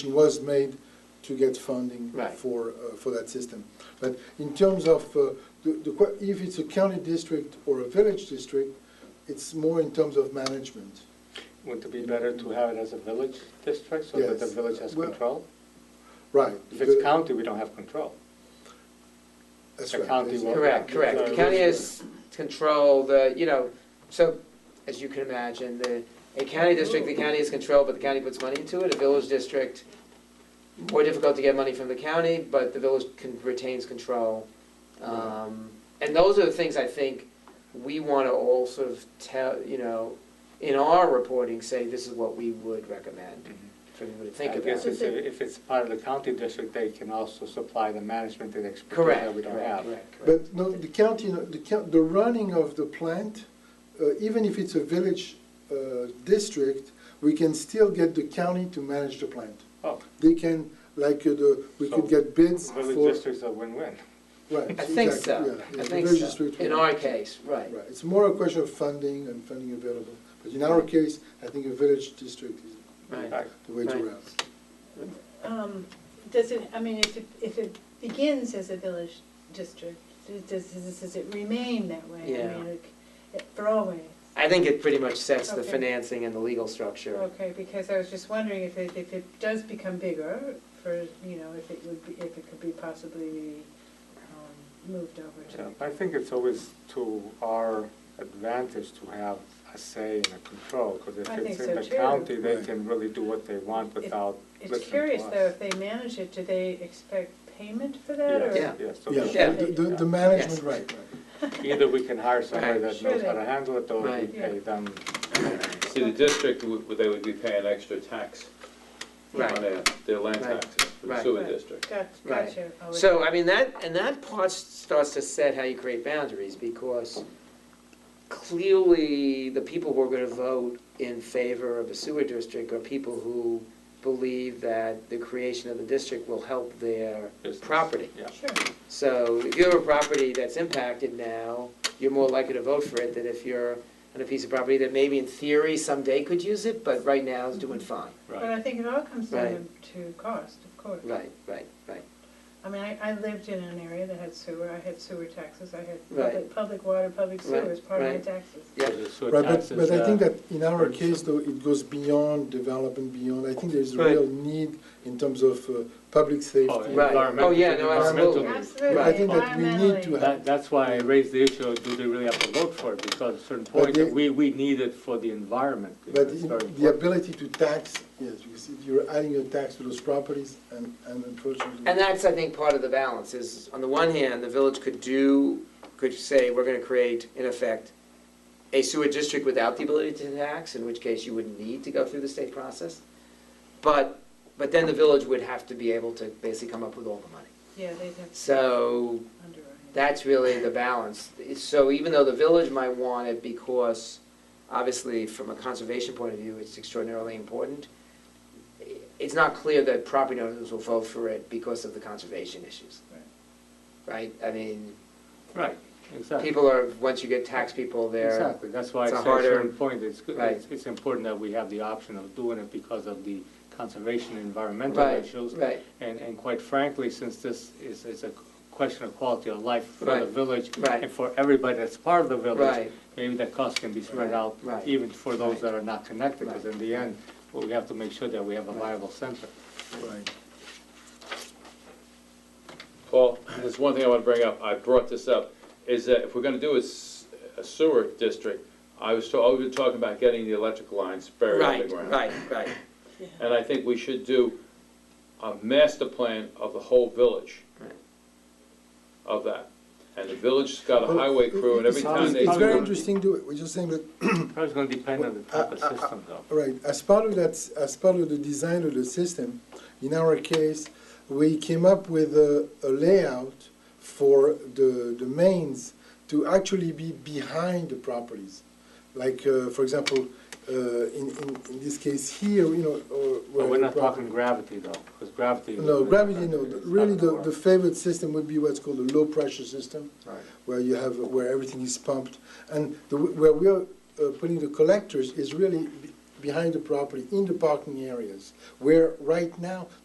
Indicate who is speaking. Speaker 1: was made to get funding
Speaker 2: Right.
Speaker 1: for, uh, for that system. But in terms of, uh, the, the, que- if it's a county district or a village district, it's more in terms of management.
Speaker 2: Wouldn't it be better to have it as a village district so that the
Speaker 1: Yes.
Speaker 2: village has
Speaker 1: Well-
Speaker 2: control?
Speaker 1: Right.
Speaker 2: If it's
Speaker 1: the-
Speaker 2: county, we don't have control.
Speaker 1: that's
Speaker 2: the
Speaker 1: right,
Speaker 2: county
Speaker 1: that's
Speaker 2: will-
Speaker 1: right.
Speaker 3: Correct, correct. The county has control, the, you know, so, as you can imagine, the, a county district, the county has control, but the county puts money into it. A village district, more difficult to get money from the county, but the village con- retains control. Um, And those are the things I think we want to all sort of tell, you know, in our reporting, say, this is what we would recommend for people to Mm-hmm. think
Speaker 2: I guess
Speaker 3: about.
Speaker 2: it's- if it's part of the county district, they can also supply the management and expertise that
Speaker 3: Correct,
Speaker 2: we don't have.
Speaker 3: correct, correct,
Speaker 1: But
Speaker 3: correct.
Speaker 1: no, the county, the count, the running of the plant, uh, even if it's a village, uh, district, we can still get the county to manage the plant.
Speaker 2: Oh,
Speaker 1: They can, like, uh, the, we could
Speaker 2: So,
Speaker 1: get bids for.
Speaker 2: village districts are win-win.
Speaker 1: Right.
Speaker 3: I think
Speaker 1: exactly,
Speaker 3: so,
Speaker 1: yeah, yeah,
Speaker 3: I
Speaker 1: the
Speaker 3: think
Speaker 1: village
Speaker 3: so,
Speaker 1: district
Speaker 3: in
Speaker 1: will-
Speaker 3: our case, right.
Speaker 1: Right, it's more a question of funding and funding available, but in our case, I think a village district is
Speaker 3: Right.
Speaker 1: the way to
Speaker 3: Right.
Speaker 1: route.
Speaker 4: Um, Does it, I mean, if it, if it begins as a village district, does, does does it remain that way? I
Speaker 3: Yeah.
Speaker 4: mean, it- it- For always,
Speaker 3: I think it pretty much sets the
Speaker 4: Okay.
Speaker 3: financing and the legal structure.
Speaker 4: okay, because I was just wondering if it, if it does become bigger for, you know, if it would be, if it could be possibly um, moved over
Speaker 2: Yeah,
Speaker 4: to.
Speaker 2: I think it's always to our advantage to have a say and a control, because if
Speaker 4: I
Speaker 2: it's
Speaker 4: think
Speaker 2: in
Speaker 4: so
Speaker 2: the
Speaker 4: too.
Speaker 2: county, they
Speaker 1: Right.
Speaker 2: can really do what they want without listening to us.
Speaker 4: It's curious though, if they manage it, do they expect payment for that or?
Speaker 2: Yes,
Speaker 3: Yeah.
Speaker 2: yes. so they
Speaker 1: Yeah,
Speaker 3: Yeah.
Speaker 1: the,
Speaker 2: should,
Speaker 1: the, the management, right, right.
Speaker 2: Either we can hire somebody
Speaker 3: Right.
Speaker 2: that
Speaker 4: Sure
Speaker 2: knows how
Speaker 4: they-
Speaker 2: to handle it, or we
Speaker 3: Right.
Speaker 2: pay them
Speaker 5: See, the district, would- they would be paying extra tax on
Speaker 3: Right.
Speaker 5: their, their land
Speaker 3: Right.
Speaker 5: taxes for the
Speaker 3: Right.
Speaker 5: sewer
Speaker 4: Right.
Speaker 5: district.
Speaker 4: Got-
Speaker 3: Right.
Speaker 4: Gotcha. Oh,
Speaker 3: So, I mean, that, and that part starts to set how you create boundaries, because clearly, the people who are gonna vote in favor of a sewer district are people who believe that the creation of the district will help their
Speaker 2: business.
Speaker 3: property.
Speaker 2: Yeah.
Speaker 4: Sure,
Speaker 3: So if you have a property that's impacted now, you're more likely to vote for it than if you're on a piece of property that maybe in theory someday could use it, but right now is doing fine.
Speaker 4: but I think it all comes down to cost, of course.
Speaker 3: Right, right, right.
Speaker 4: I mean, I, I lived in an area that had sewer, I had sewer taxes, I had
Speaker 3: Right.
Speaker 4: public, public water, public sewer
Speaker 3: Right,
Speaker 4: as part of my
Speaker 3: right.
Speaker 4: taxes.
Speaker 3: Yeah.
Speaker 1: Right, but, but I think that in our case though, it goes beyond development, beyond, I think there's a
Speaker 3: Right.
Speaker 1: real need in terms of, uh, public safety.
Speaker 3: Right. environmental- Oh, yeah, no, absolutely.
Speaker 4: Absolutely,
Speaker 1: I think that we need to
Speaker 4: environmentally.
Speaker 1: have,
Speaker 6: That, that's why I raised the issue, of do they really have to vote for it, because at a certain
Speaker 1: But
Speaker 6: point,
Speaker 1: they-
Speaker 6: we, we need it for the environment. you know,
Speaker 1: but
Speaker 6: it's
Speaker 1: in-
Speaker 6: very
Speaker 1: the
Speaker 6: important.
Speaker 1: ability to tax, yes, you see, you're adding a tax to those properties and, and unfortunately.
Speaker 3: And that's, I think, part of the balance, is on the one hand, the village could do, could say, we're gonna create, in effect, a sewer district without the ability to tax, in which case you wouldn't need to go through the state process. But, but then the village would have to be able to basically come up with all the money.
Speaker 4: Yeah, they'd have to
Speaker 3: So
Speaker 4: underwrite.
Speaker 3: that's really the balance. So even though the village might want it because, obviously, from a conservation point of view, it's extraordinarily important, it's not clear that property owners will vote for it because of the conservation issues. Right? I mean,
Speaker 6: Right, exactly,
Speaker 3: people are, once you get tax people, they're,
Speaker 6: exactly, that's why I
Speaker 3: it's
Speaker 6: say
Speaker 3: a
Speaker 6: at a
Speaker 3: harder-
Speaker 6: certain point, it's, good-
Speaker 3: right.
Speaker 6: it's, it's important that we have the option of doing it because of the conservation and environmental
Speaker 3: right,
Speaker 6: issues.
Speaker 3: right,
Speaker 6: And, and quite frankly, since this is, is a question of quality of life for the
Speaker 3: Right.
Speaker 6: village
Speaker 3: Right.
Speaker 6: and for everybody that's part of the village,
Speaker 3: right,
Speaker 6: maybe that cost can be spread
Speaker 3: Right,
Speaker 6: out
Speaker 3: right,
Speaker 6: even for those
Speaker 3: right.
Speaker 6: that are not connected, because
Speaker 3: Right.
Speaker 6: in the end, we have to make sure that we have a
Speaker 3: Right.
Speaker 6: viable center.
Speaker 1: Right.
Speaker 5: Paul, there's one thing I want to bring up, I brought this up, is that if we're gonna do a s- a sewer district, I was, ta- I've been talking about getting the electric lines buried
Speaker 3: right,
Speaker 5: underground.
Speaker 3: right, right.
Speaker 5: And I think we should do a master plan of the whole village
Speaker 3: Right.
Speaker 5: of that. And the village's got a
Speaker 1: Well,
Speaker 5: highway crew, and every
Speaker 1: it's-
Speaker 5: time
Speaker 1: it's-
Speaker 5: they
Speaker 1: It's very
Speaker 5: do,
Speaker 1: interesting, to- we're just saying that
Speaker 6: Probably it's gonna depend on the type of
Speaker 1: uh,
Speaker 6: system though.
Speaker 1: Right, as part of that, as part of the design of the system, in our case, we came up with a, a layout for the, the mains to actually be behind the properties. Like, uh, for example, uh, in, in, in this case here, you know, or. where
Speaker 6: But we're
Speaker 1: the
Speaker 6: not
Speaker 1: property-
Speaker 6: talking gravity though, because gravity.
Speaker 1: No, gravity, no, The-
Speaker 6: It's not
Speaker 1: really the,
Speaker 6: gonna
Speaker 1: the
Speaker 6: work.
Speaker 1: favorite system would be what's called a low-pressure system
Speaker 6: Right.
Speaker 1: where you have where everything is pumped and the, where we are uh, putting the collectors is really behind the property, in the parking areas, where right now